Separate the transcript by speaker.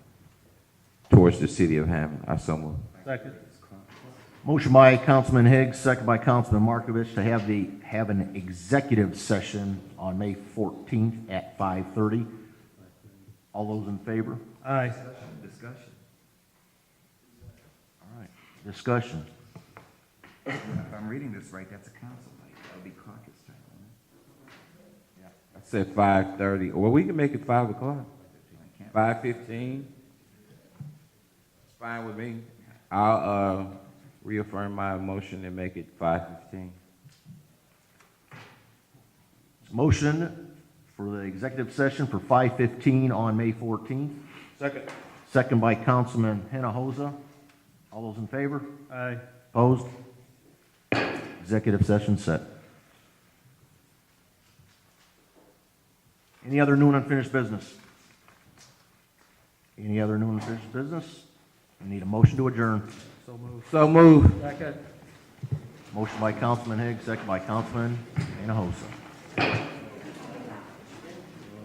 Speaker 1: towards the city of Hammond. I so move.
Speaker 2: Second.
Speaker 3: Motion by Councilman Higgs, second by Councilman Markovich to have the, have an executive session on May 14th at 5:30. All those in favor?
Speaker 2: Aye.
Speaker 1: Discussion.
Speaker 3: Discussion.
Speaker 1: If I'm reading this right, that's a council night. That'll be caucus time. I said five thirty. Well, we can make it five o'clock. Five fifteen. It's Fine with me. I'll, uh, reaffirm my motion and make it five fifteen.
Speaker 3: Motion for the executive session for 5:15 on May 14th,
Speaker 2: Second.
Speaker 3: second by Councilman Hinojosa. All those in favor?
Speaker 2: Aye.
Speaker 3: Opposed? Executive session set. Any other new and unfinished business? Any other new and unfinished business? We need a motion to adjourn.
Speaker 2: So moved.
Speaker 1: So move.
Speaker 2: Second.
Speaker 3: Motion by Councilman Higgs, second by Councilman Anahosa.